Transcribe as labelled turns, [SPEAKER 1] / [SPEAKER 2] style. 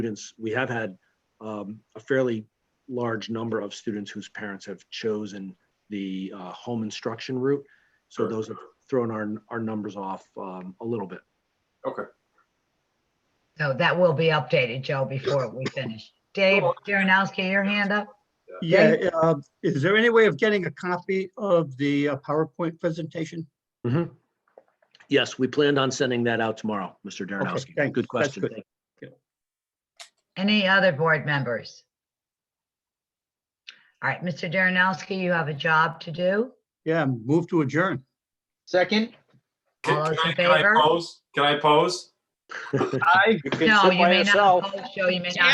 [SPEAKER 1] students, we have had um, a fairly large number of students whose parents have chosen the uh, home instruction route. So
[SPEAKER 2] Sure.
[SPEAKER 1] those have thrown our, our numbers off um, a little bit.
[SPEAKER 2] Okay.
[SPEAKER 3] So that will be updated, Joe, before we finish. Dave Jaranowski, your hand up?
[SPEAKER 4] Yeah, uh, is there any way of getting a copy of the uh, PowerPoint presentation?
[SPEAKER 1] Yes, we planned on sending that out tomorrow, Mr. Darrenowski.
[SPEAKER 4] thanks.
[SPEAKER 1] Good
[SPEAKER 4] That's
[SPEAKER 1] question.
[SPEAKER 4] good.
[SPEAKER 1] Thank
[SPEAKER 3] Any other board members? All right, Mr. Jaranowski, you have a job to do.
[SPEAKER 4] Yeah, move to adjourn.
[SPEAKER 5] Second?
[SPEAKER 3] All
[SPEAKER 2] Can can
[SPEAKER 3] those in
[SPEAKER 2] I can I
[SPEAKER 3] favor?
[SPEAKER 2] pose? Can I pose?
[SPEAKER 5] Aye.
[SPEAKER 3] No, you may not. oppose, Joe, you may not.